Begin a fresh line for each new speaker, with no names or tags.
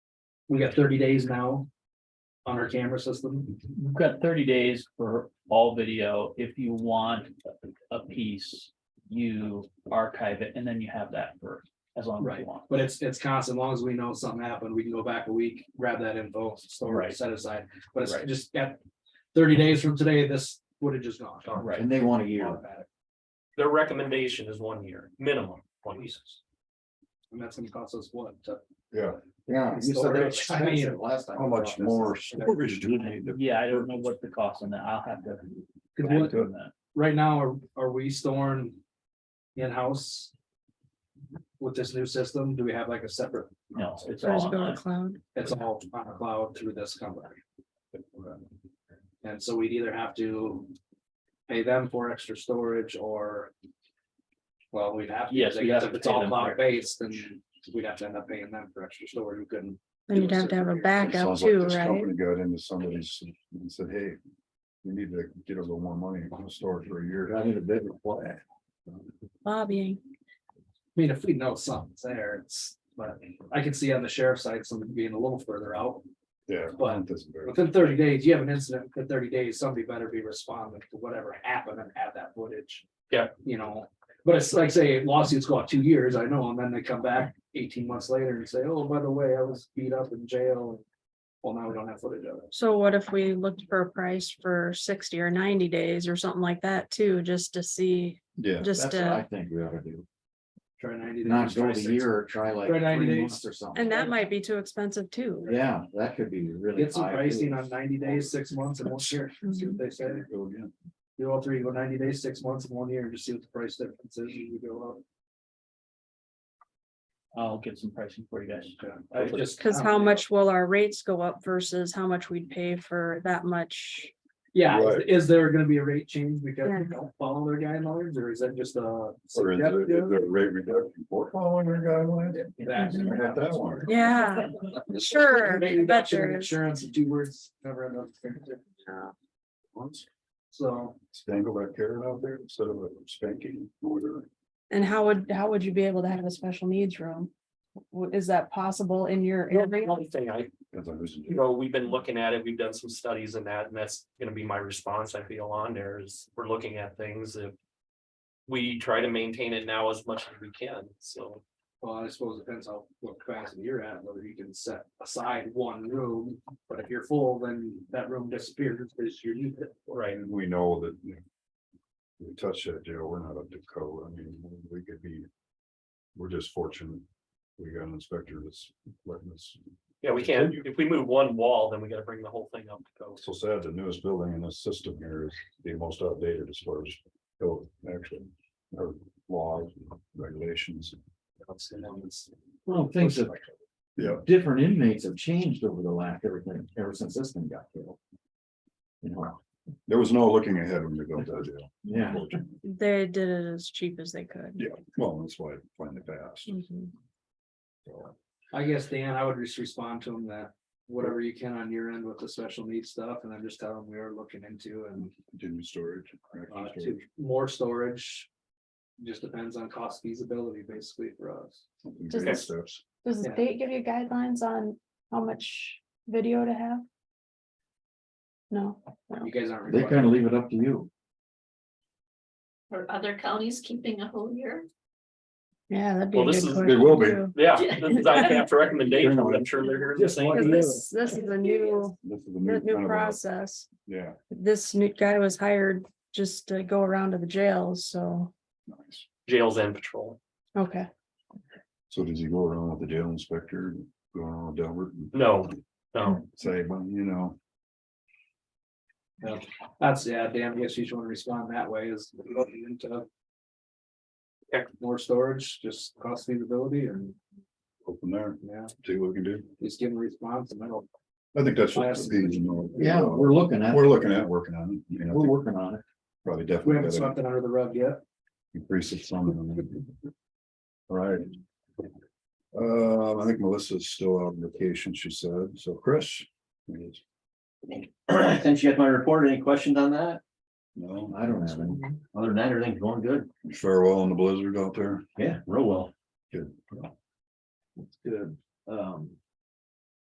we got thirty days now. On our camera system,
We've got thirty days for all video. If you want a piece, you archive it and then you have that for as long as
Right.
you want.
but it's, it's constant, as long as we know something happened, we can go back a week, grab that info, store
Right.
it, set aside, but it's
Right.
just got. Thirty days from today, this would have just gone.
Right.
And they want a year.
Automatic.
Their recommendation is one year, minimum, one year.
And that's gonna cost us what, to-
Yeah. You said they're expensive last time.
How much more storage do we need? to-
Yeah, I don't know what the cost on that. I'll have to.
Cause
back
what-
to that.
right now, are, are we storing in-house? With this new system, do we have like a separate,
No, it's all
There's a
online.
cloud.
it's all on the cloud through this company? And so we'd either have to pay them for extra storage or. Well, we'd have. to,
Yes,
I
we'd
guess
have
If
to
it's
pay
all
them for it.
cloud based, then we'd have to end up paying them for extra storage, we couldn't.
And you'd have to have a backup
Sounds like
too,
this
right?
company Got into somebody's and said, hey, we need to get a little more money and store it for a year. I need a bit
Lobbying.
I mean, if we know something's there, it's, but I can see on the sheriff's side, something being a little further out.
Yeah.
But Within thirty days, you have an incident, within thirty days, somebody better be responding to whatever happened and have that footage.
Yeah.
You know, but it's like, say lawsuits go out two years, I know, and then they come back eighteen months later and say, oh, by the way, I was beat up in jail. and Well, now we don't have footage of it.
So what if we looked for a price for sixty or ninety days or something like that too, just to see,
Yeah.
just uh,
That's what I
to,
think we ought to do.
Try ninety. days,
Not
try
go to
60.
year, or try like
Try 90
three
days.
months or something.
and that might be too expensive too.
Yeah, that could be really.
Get some
high,
pricing
too.
on ninety days, six months and one year, see
Mhm.
what they say.
Go again.
Do all three, go ninety days, six months and one year, and just see what the price difference is, you go up.
I'll get some pricing for you guys.
I just-
Cause how much will our rates go up versus how much we'd pay for that much?
Yeah, is-
Right.
is there gonna be a rate change because
Yeah.
we don't follow their guidelines, or is that just a?
Or is it, is
suggestive?
there a rate reduction for following your guidelines?
That-
I got that one.
Yeah, sure,
Rate reduction and
better.
Insurance, in two words, never enough.
Once,
So,
Dangle that carrot out there instead of a spanking order.
and how would, how would you be able to have a special needs room? W- Is that possible in your area?
One thing I,
As I listen
you
to.
know, we've been looking at it, we've done some studies and that, and that's gonna be my response, I feel on there is, we're looking at things if. We try to maintain it now as much as we can, so,
well, I suppose it depends how, what capacity you're at, whether you can set aside one room, but if you're full, then that room disappears because you need it.
right,
And we know that. you know, We touch that jail, we're not up to code, I mean, we could be. We're just fortunate. We got an inspector that's letting us,
yeah, we can, if we move one wall, then we gotta bring the whole thing up to code.
so sad, the newest building in this system here is the most outdated as far as. code, Actually, or laws, and regulations.
Well, things have,
Yeah,
different inmates have changed over the last, everything, ever since this thing got killed. You know,
there was no looking ahead when we built that jail.
yeah,
unfortunately.
They did it as cheap as they could.
Yeah, well, that's why I find it fast.
Mhm.
I guess, Dan, I would just respond to him that whatever you can on your end with the special needs stuff, and then just tell him we are looking into and
Continue storage. correct
Uh, to
storage,
more storage. Just depends on cost feasibility basically for us.
something
Does
great
this-
steps.
Does
the
state give you guidelines on how much video to have? No.
You guys aren't.
they
required-
kind of leave it up to you.
Are other counties keeping a whole year?
Yeah, that'd
be a Well, this good is-
it will be.
Yeah, this is our draft recommendation, I'm sure they're hearing the
Just
same.
like
This, this is a new,
This is a new kind of
new
a-
process.
Yeah,
This new guy was hired just to go around to the jails, so,
nice.
Jails and patrol.
okay.
So does he go around with the jail inspector, go around with Delbert and
No, no,
say, well, you know,
That's, yeah, Dan, yes, you should want to respond that way is looking into.
Yeah.
More storage, just cost feasibility and,
open there,
yeah,
see what we can do.
just give them a response and that'll.
I think that's. what
Last-
the fees, you know, uh,
Yeah, we're looking at,
We're
we're
looking at working on it. you know, I think
working on it.
Probably
We haven't
definitely gotta
swept it under the rug yet.
increase it some. and then- All Right. Um, I think Melissa's still on vacation, she said. So Chris? please.
Since you had my report, any questions on that?
No,
I don't have any.
Other than that, everything's going good.
farewell in the blizzard out there.
Yeah, real well.
Good.
It's good. Um,